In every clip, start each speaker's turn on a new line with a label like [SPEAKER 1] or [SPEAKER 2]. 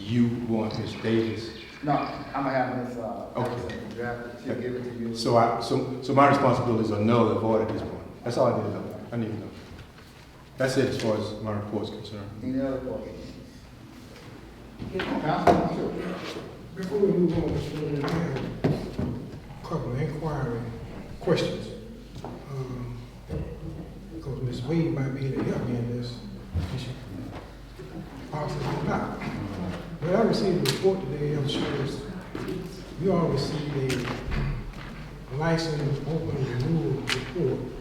[SPEAKER 1] You want his Davis?
[SPEAKER 2] No, I'm gonna have this, uh,
[SPEAKER 1] Okay.
[SPEAKER 2] Allison draft it, she'll give it to you.
[SPEAKER 1] So I, so, so my responsibilities are null and void at this point. That's all I need to know. I need to know. That's it as far as my report's concerned.
[SPEAKER 2] Any other questions? Councilman Chu.
[SPEAKER 3] Before we move on, Mr. President, I have a couple of inquiry questions. Um, Because Ms. Wade might be able to help me in this issue. Possibly not. But I received a report today, I'm sure it's, you all received a license open renewal report.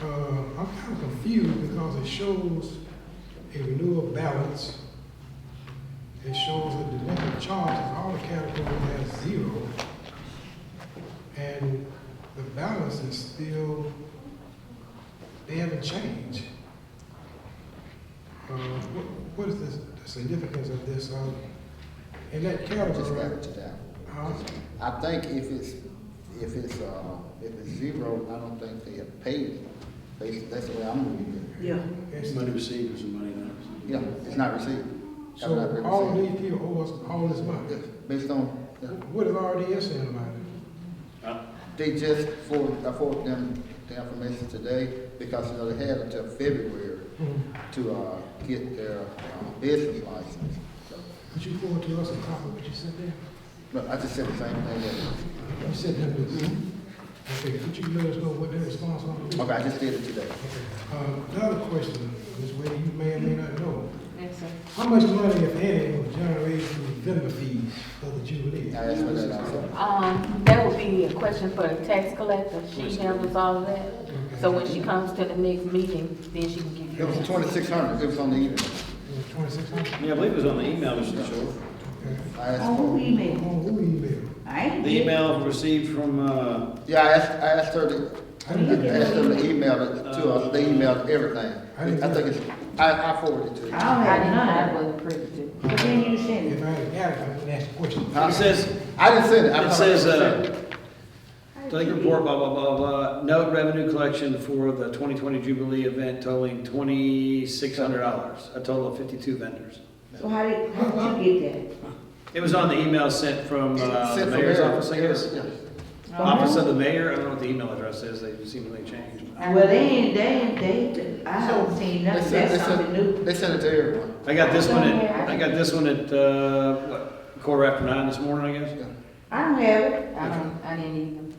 [SPEAKER 3] Uh, I'm kind of confused because it shows a renewal balance it shows that the delinquent charges, all the categories has zero. And the balance is still, they haven't changed. Uh, wh- What is this- the significance of this? um, In that
[SPEAKER 2] Just wrap
[SPEAKER 3] category,
[SPEAKER 2] it down.
[SPEAKER 3] huh?
[SPEAKER 2] I think if it's, if it's, uh, if it's zero, I don't think they have paid it. Basically, that's the way I'm reading
[SPEAKER 4] Yeah,
[SPEAKER 3] It's-
[SPEAKER 5] Money received is money not
[SPEAKER 2] it.
[SPEAKER 5] received.
[SPEAKER 2] Yeah, it's not received. Have not
[SPEAKER 3] So
[SPEAKER 2] been
[SPEAKER 3] all
[SPEAKER 2] received.
[SPEAKER 3] these people owe us all this money.
[SPEAKER 2] Yes, Based on, yeah.
[SPEAKER 3] What is RDS saying about it?
[SPEAKER 2] They just forwarded, I forwarded them the information today because, you know, they had until February to, uh, get their uh, business license. So,
[SPEAKER 3] Could you forward to us a copy of what you said there?
[SPEAKER 2] But I just said the same thing that,
[SPEAKER 3] You said that was, okay, could you let us know what their response was?
[SPEAKER 2] okay, I just did it today.
[SPEAKER 3] Um, Another question, Ms. Wade, you may or may not know.
[SPEAKER 4] yes, sir.
[SPEAKER 3] How much money, if any, was generated through vendor fees for the Jubilee?
[SPEAKER 2] I asked for that also.
[SPEAKER 4] Um, that would be a question for the tax collector, she handles all of that. So when she comes to the next meeting, then she can give
[SPEAKER 2] It
[SPEAKER 4] you.
[SPEAKER 2] was twenty-six hundred, it was on the email.
[SPEAKER 3] Uh, Twenty-six hundred?
[SPEAKER 5] Yeah, I believe it was on the email, Mr. Short.
[SPEAKER 3] Okay.
[SPEAKER 2] I asked
[SPEAKER 6] On Oh, who
[SPEAKER 2] for,
[SPEAKER 6] email?
[SPEAKER 3] On who email?
[SPEAKER 6] I ain't.
[SPEAKER 5] The email received from, uh,
[SPEAKER 2] yeah, I asked, I asked her to,
[SPEAKER 3] I
[SPEAKER 2] I
[SPEAKER 3] didn't get
[SPEAKER 2] asked them to email it to us, they emailed everything. I think it's, I, I forwarded it to
[SPEAKER 6] I
[SPEAKER 2] you.
[SPEAKER 6] don't
[SPEAKER 4] I
[SPEAKER 6] have
[SPEAKER 4] didn't, I
[SPEAKER 6] none.
[SPEAKER 4] wasn't privy to.
[SPEAKER 6] But then you send
[SPEAKER 3] If
[SPEAKER 6] it.
[SPEAKER 3] I had got it, I would ask the question.
[SPEAKER 2] Huh?
[SPEAKER 5] it says,
[SPEAKER 2] I didn't send it. I
[SPEAKER 5] it
[SPEAKER 2] thought I
[SPEAKER 5] says,
[SPEAKER 2] sent
[SPEAKER 5] uh, take report, blah, blah, blah, blah, note revenue collection for the twenty twenty Jubilee event totaling twenty-six hundred dollars, a total of fifty-two vendors.
[SPEAKER 6] So how did, how did you get
[SPEAKER 5] It was on the email sent from, uh, the
[SPEAKER 2] Sent from Uh-huh.
[SPEAKER 5] mayor's
[SPEAKER 2] Eric.
[SPEAKER 5] office, I guess.
[SPEAKER 2] Eric,
[SPEAKER 6] that?
[SPEAKER 5] Office of the mayor, I don't know what the email address is, they seemingly changed.
[SPEAKER 6] Well, they ain't, they ain't, they, I haven't seen
[SPEAKER 2] yeah. They
[SPEAKER 6] nothing,
[SPEAKER 2] sent- they
[SPEAKER 6] that's
[SPEAKER 2] sent-
[SPEAKER 6] something new.
[SPEAKER 2] They sent it to everyone.
[SPEAKER 5] I got this one at, I got this one at, uh, what, quarter after nine this morning, I guess?
[SPEAKER 6] I don't have it.
[SPEAKER 4] I don't, I didn't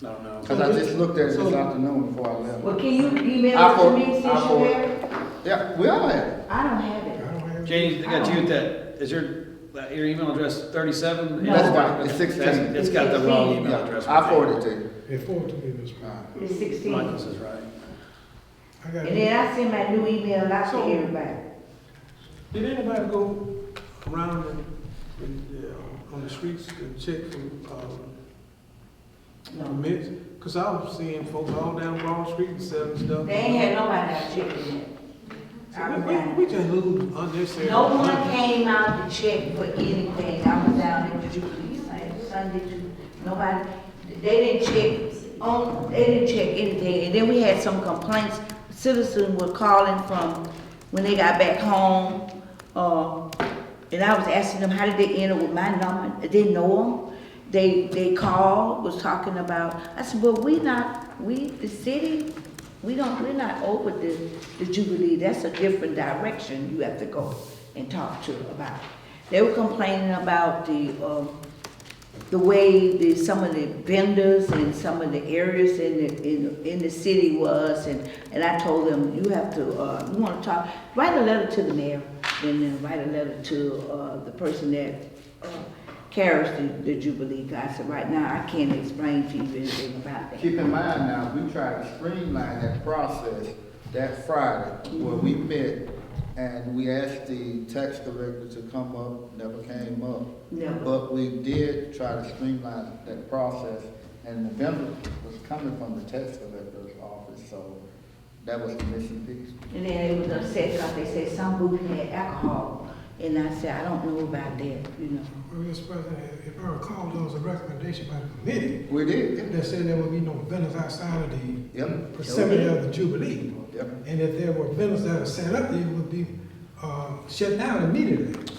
[SPEAKER 5] I don't know.
[SPEAKER 2] Cause I just looked at it this afternoon before I left.
[SPEAKER 6] Well, can you email
[SPEAKER 2] I
[SPEAKER 6] it to
[SPEAKER 2] for-
[SPEAKER 6] me since you
[SPEAKER 2] I for-
[SPEAKER 6] have it?
[SPEAKER 2] Yeah, we all had it.
[SPEAKER 6] I don't have
[SPEAKER 3] I
[SPEAKER 6] it.
[SPEAKER 3] don't have.
[SPEAKER 5] James, I got you at that, is your, that- your email address thirty-seven?
[SPEAKER 6] No. That's
[SPEAKER 2] right, it's 16.
[SPEAKER 5] It's got the wrong email
[SPEAKER 2] Yeah,
[SPEAKER 5] address.
[SPEAKER 2] I forwarded it to you.
[SPEAKER 3] They forwarded to me this one.
[SPEAKER 6] It's sixteen.
[SPEAKER 5] Michael's
[SPEAKER 6] And
[SPEAKER 5] is right.
[SPEAKER 3] I got it.
[SPEAKER 6] then I send my new email out to
[SPEAKER 3] So-
[SPEAKER 6] everybody.
[SPEAKER 3] Did anybody go around and- and, uh, on the streets and check for um, permits? Because I was seeing folks all down Broad Street and selling stuff.
[SPEAKER 6] They ain't had nobody out checking it. I
[SPEAKER 3] So
[SPEAKER 6] was
[SPEAKER 3] we-
[SPEAKER 6] down.
[SPEAKER 3] We we just lose unnecessary.
[SPEAKER 6] No one
[SPEAKER 3] money.
[SPEAKER 6] came out to check for anything. I was down at the Jubilee Sun- Sunday, Ju- nobody, they didn't check on, they didn't check anything. And then we had some complaints, citizens were calling from when they got back home. Uh, and I was asking them, how did they end up with my number? They Didn't know them. They, they called, was talking about, I said, well, we not, we, the city, we don't, we're not over the, the Jubilee. That's a different direction you have to go and talk to about. They were complaining about the, um, the way the, some of the vendors and some of the areas in the, in, in the city was, and, and I told them, you have to, uh, you wanna talk, write a letter to the mayor, and then write a letter to, uh, the person that, uh, carries the, the Jubilee, 'Cause I said, right now, I can't explain to you anything about that.
[SPEAKER 2] Keep in mind now, we tried to streamline that process that Friday where we met and we asked the tax collector to come up, never came up.
[SPEAKER 6] Never.
[SPEAKER 2] But we did try to streamline that process and the vendor was coming from the tax collector's office, so that was the missing piece.
[SPEAKER 6] And then they was upset because they said some booth had alcohol, and I said, I don't know about that, you know.
[SPEAKER 3] Well, Mr. President, if I recall, there was a recommendation by the committee
[SPEAKER 2] We did,
[SPEAKER 3] that said there would be no vendors outside of the
[SPEAKER 2] yep,
[SPEAKER 3] vicinity of the Jubilee.
[SPEAKER 2] yep.
[SPEAKER 3] And if there were vendors that are set up, they would be, uh, shut down immediately.